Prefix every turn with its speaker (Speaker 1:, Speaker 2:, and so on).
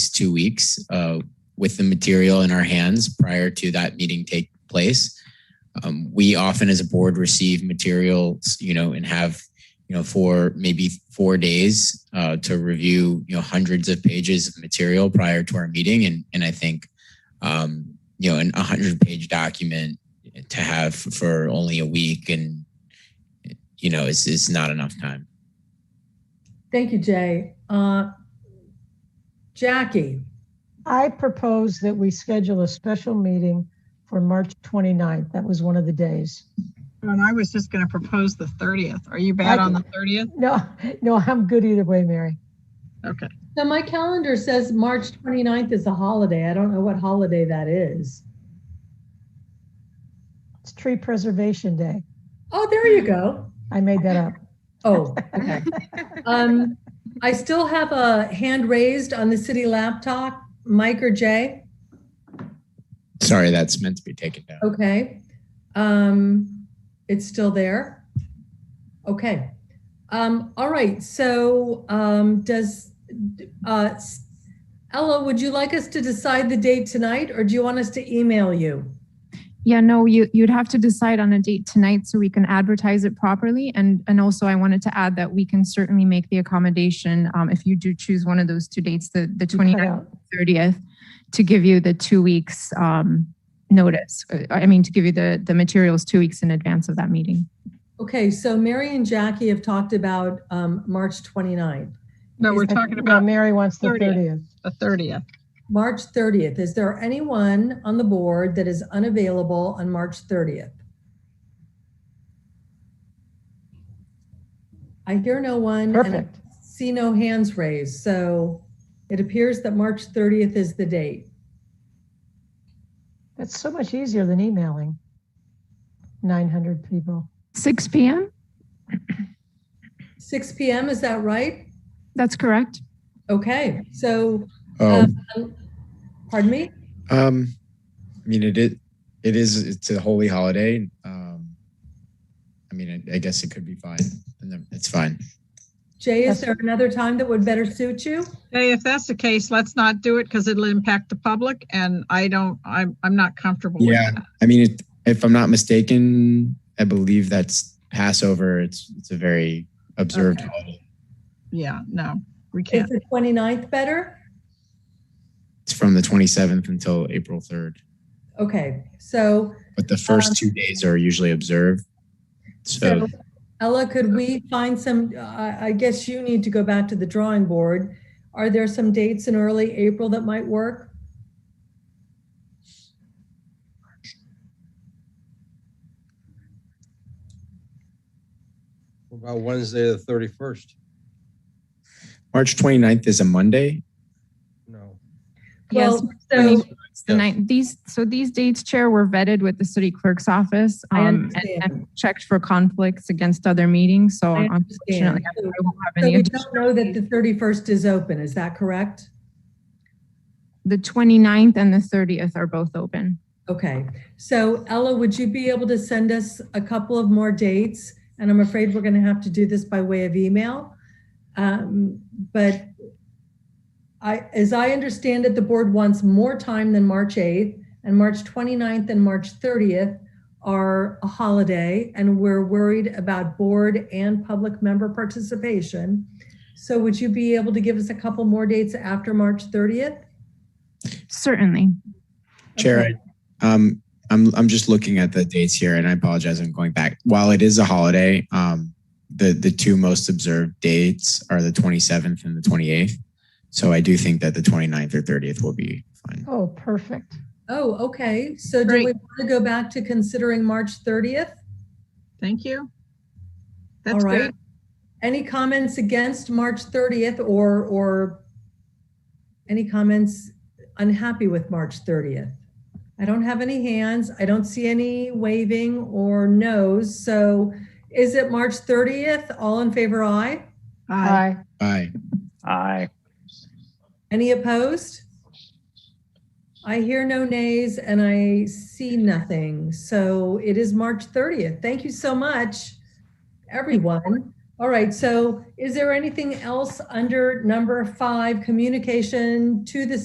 Speaker 1: two weeks uh, with the material in our hands prior to that meeting take place. Um, we often, as a board, receive materials, you know, and have, you know, for maybe four days uh, to review, you know, hundreds of pages of material prior to our meeting. And and I think, um, you know, an 100-page document to have for only a week and, you know, is is not enough time.
Speaker 2: Thank you, Jay. Uh, Jackie,
Speaker 3: I propose that we schedule a special meeting for March 29th. That was one of the days.
Speaker 4: And I was just going to propose the 30th. Are you bad
Speaker 3: I-
Speaker 4: on the 30th?
Speaker 3: No, no, I'm good either way, Mary.
Speaker 4: Okay.
Speaker 2: now my calendar says March 29th is a holiday. I don't know what holiday that is.
Speaker 3: It's Tree Preservation Day.
Speaker 2: Oh, there you go.
Speaker 3: I made that up.
Speaker 2: Oh, okay. Um, I still have a hand raised on the city laptop, Mike or Jay.
Speaker 1: Sorry, that's meant to be taken down.
Speaker 2: Okay. Um, it's still there. Okay. Um, all right. So um, does uh, s- Ella, would you like us to decide the date tonight or do you want us to email you?
Speaker 5: Yeah, no, you, you'd have to decide on a date tonight so we can advertise it properly. And, and also I wanted to add that we can certainly make the accommodation, um, if you do choose one of those two dates, the, the
Speaker 3: You cut
Speaker 5: 29th,
Speaker 3: out.
Speaker 5: 30th, to give you the two weeks, um, notice. Uh, I mean, to give you the, the materials two weeks in advance of that meeting.
Speaker 2: Okay, so Mary and Jackie have talked about um, March 29th.
Speaker 4: No, we're
Speaker 3: I-
Speaker 4: talking
Speaker 3: no,
Speaker 4: about
Speaker 3: Mary wants the
Speaker 4: 30th.
Speaker 3: 30th.
Speaker 4: the 30th.
Speaker 2: March 30th. Is there anyone on the board that is unavailable on March 30th? I hear no one. and I
Speaker 3: Perfect.
Speaker 2: See no hands raised, so it appears that March 30th is the date.
Speaker 3: That's so much easier than emailing 900 people.
Speaker 5: Six PM?
Speaker 2: Six PM, is that right?
Speaker 5: That's correct.
Speaker 2: Okay, so,
Speaker 1: Oh,
Speaker 2: um, pardon me?
Speaker 1: um, I mean, it is, it is, it's a holy holiday. Um, I mean, I, I guess it could be fine. And then it's fine.
Speaker 2: Jay, is
Speaker 3: Yes.
Speaker 2: there another time that would better suit you?
Speaker 4: Hey, if that's the case, let's not do it because it'll impact the public and I don't, I'm, I'm not comfortable with
Speaker 1: Yeah.
Speaker 4: that.
Speaker 1: I mean, it, if I'm not mistaken, I believe that's Passover. It's, it's a very observed
Speaker 4: Okay.
Speaker 1: holiday.
Speaker 4: Yeah, no, we
Speaker 2: Is
Speaker 4: can't.
Speaker 2: the 29th better?
Speaker 1: It's from the 27th until April 3rd.
Speaker 2: Okay, so
Speaker 1: But the first
Speaker 2: Um,
Speaker 1: two days are usually observed. So,
Speaker 2: So Ella, could we find some, uh, I, I guess you need to go back to the drawing board. Are there some dates in early April that might work?
Speaker 6: What About Wednesday, the thirty-first?
Speaker 1: March 29th is a Monday.
Speaker 6: No.
Speaker 5: Yes.
Speaker 2: Well, so-
Speaker 5: It's The
Speaker 6: Yes.
Speaker 5: ninth, these, so these dates, Chair, were vetted with the city clerk's office.
Speaker 2: I
Speaker 5: um, and-
Speaker 2: understand.
Speaker 5: And checked for conflicts against other meetings, so
Speaker 2: I
Speaker 5: unfortunately, I
Speaker 2: understand.
Speaker 5: won't have
Speaker 2: So
Speaker 5: any.
Speaker 2: we
Speaker 5: additional-
Speaker 2: don't know that the 31st is open, is that correct?
Speaker 5: The 29th and the 30th are both open.
Speaker 2: Okay, so Ella, would you be able to send us a couple of more dates? And I'm afraid we're going to have to do this by way of email. Um, But I, as I understand it, the board wants more time than March 8th and March 29th and March 30th are a holiday and we're worried about board and public member participation. So would you be able to give us a couple more dates after March 30th?
Speaker 5: Certainly.
Speaker 1: Chair,
Speaker 2: Okay.
Speaker 1: I- um, I'm, I'm just looking at the dates here and I apologize. I'm going back. While it is a holiday, um, the, the two most observed dates are the 27th and the 28th. So I do think that the 29th or 30th will be fine.
Speaker 3: Oh, perfect.
Speaker 2: Oh, okay. So do we
Speaker 4: Great.
Speaker 2: want to go back to considering March 30th?
Speaker 4: Thank you.
Speaker 2: All
Speaker 4: That's
Speaker 2: right.
Speaker 4: good.
Speaker 2: Any comments against March 30th or, or any comments unhappy with March 30th? I don't have any hands. I don't see any waving or noes. So is it March 30th? All in favor, aye?
Speaker 4: Aye.
Speaker 1: Aye.
Speaker 7: Aye.
Speaker 2: Any opposed? I hear no nays and I see nothing. So it is March 30th. Thank you so much, everyone. All right, so is there anything else under number five, communication to the